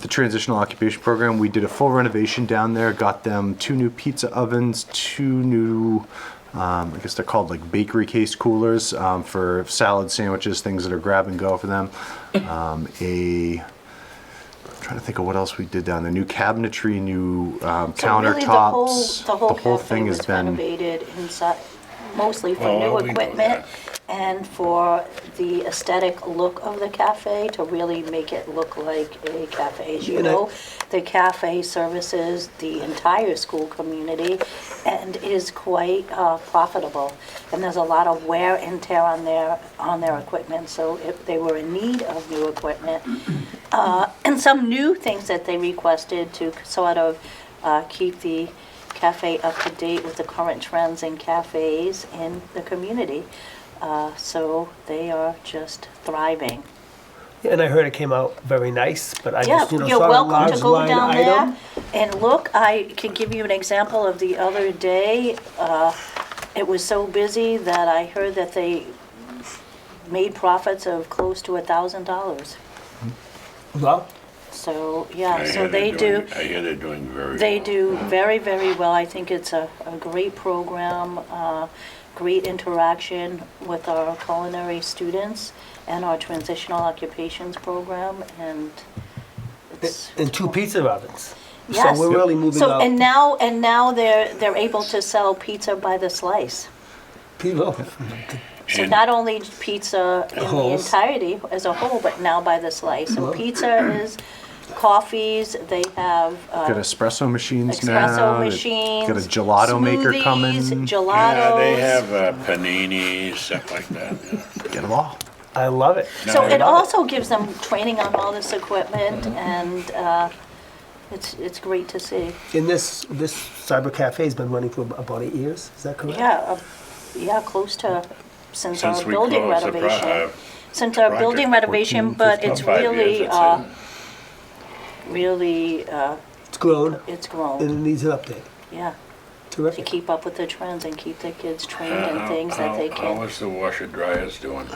The transitional occupation program, we did a full renovation down there, got them two new pizza ovens, two new, um, I guess they're called like bakery case coolers um, for salad sandwiches, things that are grab and go for them. Um, a, I'm trying to think of what else we did down there. New cabinetry, new um, So really, the whole- countertops. The whole cafe thing has was been. renovated inside, mostly for Oh, new we know equipment that. and for the aesthetic look of the cafe, to really make it look like a cafe. As you And I- know, the cafe services the entire school community and is quite uh, profitable. And there's a lot of wear and tear on their, on their equipment, so if they were in need of new equipment, and some new things that they requested to sort of uh, keep the cafe up to date with the current trends in cafes in the community. Uh, So they are just thriving. And I heard it came out very nice, but I Yeah, just, you know, you're saw a welcome large to go line down item. there and look. I can give you an example of the other day. uh, It was so busy that I heard that they made profits of close to a thousand dollars. Well, So, I yeah, hear so they're they do. doing- I hear they're doing very They well. do very, very well. I think it's a, a great program, uh, great interaction with our culinary students and our transitional occupations program, and it's. and two pizza ovens. Yes. So we're really moving So, up. and now, and now they're, they're able to sell pizza by the slice. People, So And- not only pizza in the Wholes. entirety as a whole, but now by the slice. And Well- pizza is coffees, they have. uh, Got espresso machines now. espresso machines. Got a gelato maker smoothies, coming. Gelatos. Yeah, they have uh, paninis, stuff like that. yeah. Get them all. I love it. So No, it I- also gives them training on all this equipment, Mm-hmm. and uh, it's it's great to see. And this, this cyber cafe's been running for ab- about eight years, is that correct? Yeah, uh, yeah, close to since our Since we building closed the pro- renovation. uh, Since our project, building 14, renovation, but About it's five years, really, I'd uh, say. really, uh, It's grown, it's and it grown, needs an update. yeah. To Terrific. keep up with the trends and keep the kids trained Uh, in things how- that they How can. is the washer dryers doing?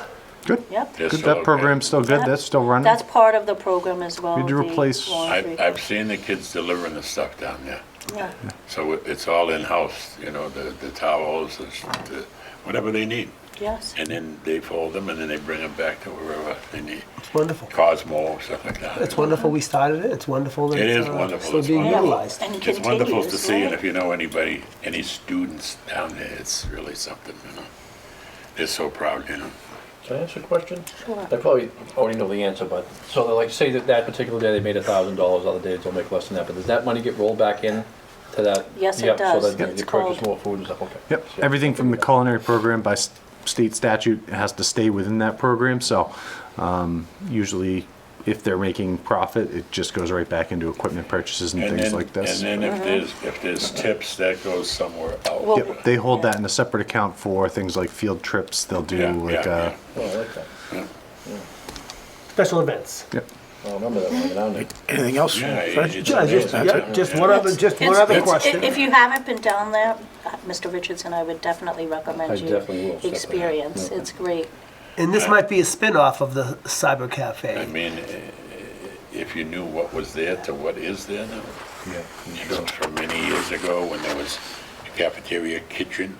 Good. Yep. They're Good. still That okay. program's still good. That's still running. That's part of the program as well. Need to the replace- laundry. I've, I've seen the kids delivering the stuff down there. Yeah. So it- it's all in-house, you know, the, the towels, the s- the- whatever they need. Yes. And then they fold them and then they bring them back to wherever they need. It's wonderful. Cosmo, stuff like that. It's wonderful we started it, it's wonderful that It it's is uh, wonderful, still it's being wonderful. utilized. And It's wonderful to continues, see, and right? if you know anybody, any students down there, it's really something, you know. They're so proud, you know. Can I ask a question? Sure. I probably already know the answer, but, so like, say that that particular day they made a thousand dollars, other days they'll make less than that, but does that money get rolled back in to that? Yes, it Yep, so does. that Yep. It's You purchase called- more food and stuff, okay. Yep, Yeah. everything from the culinary program by s- state statute has to stay within that program, so um, usually if they're making profit, it just goes right back into equipment purchases and And things then, like this. Uh-huh. and then if there's, if there's tips, that goes somewhere Uh-huh. Well- else. Yep, they hold that in a separate account for things like field trips, they'll do Yeah, like, yeah, uh, Oh, I like that. Special events. yep. I remember that when I went down there. Anything else? Yeah, it- Fred? it's Yeah, just, amazing. yeah, just Yeah. one other, just one It's- other it's- question. If you haven't been down there, uh, Mr. Richardson, I would definitely recommend I you definitely will, definitely. experience. It's great. And this might be a spin-off of the cyber I cafe. mean, eh, if you knew what was there to what is there now. You know, from many years ago, when there was a cafeteria kitchen,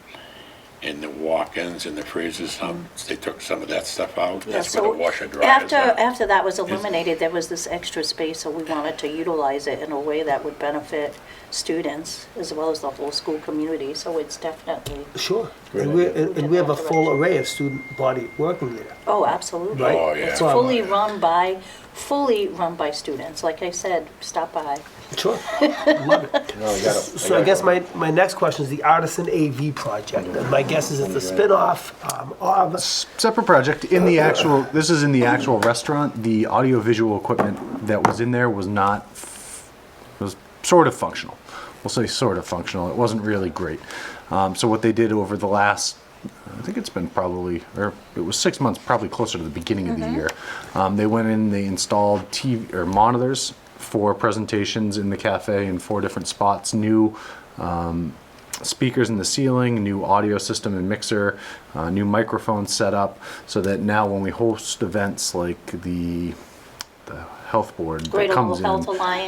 and the walk-ins and the freezers, some, they took some of that stuff out. That's where the Mm. So washer dryers After, are. after that was eliminated, there was this extra space, so we wanted to utilize it in a way that would benefit students as well as the whole school community, so it's definitely, Sure. And we, and and we have a full array of student body working there. oh, absolutely. Right. Oh, yeah. It's fully run by, fully run by students. Like I said, stop by. Sure. Love it. No, I got it. So I got guess it. my, my next question is the Artisan AV project. And my guess is it's a spin-off um, of, Separate project, in the actual, this is in the actual restaurant, the audiovisual equipment that was in there was not, f- was sort of functional. We'll say sort of functional, it wasn't really great. Um, so what they did over the last, I think it's been probably, or it was six months, probably closer to the beginning of the year. Um, they went in, they installed TV, or monitors for presentations in the cafe in four different spots, new um, speakers in the ceiling, new audio system and mixer, uh, new microphone setup, so that now when we host events like the, the health board Great that Old comes in. Health Alliance.